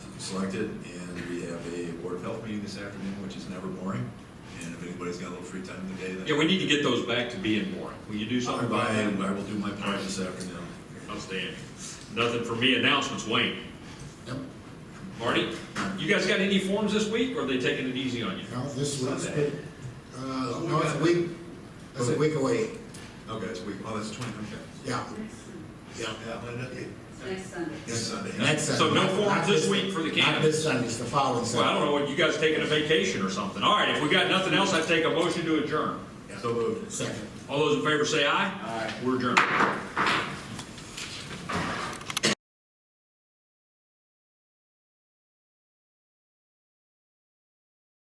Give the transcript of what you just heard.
selected, and we have a Board of Health meeting this afternoon, which is never boring, and if anybody's got a little free time today, then. Yeah, we need to get those back to being boring. Will you do something about I that? I will do my part this afternoon. Outstanding. Nothing for me. Announcements, Wayne. Yep. Marty, you guys got any forms this week, or are they taking it easy on you? No, this week's, Sunday. uh, Oh, no, it's a week, it's a week away, Okay, it's week, oh, that's twenty, okay. yeah, yeah. Next Sunday. Next Sunday. Next Sunday. So no Not- forms not this week for the Not candidates? this Sunday, it's the following Well, I don't Sunday. know, what you guys taking a vacation or something. All right, if we got nothing else, I'd take a motion to adjourn. So uh, moved. Second. All those in favor say aye. Aye. We're adjourned.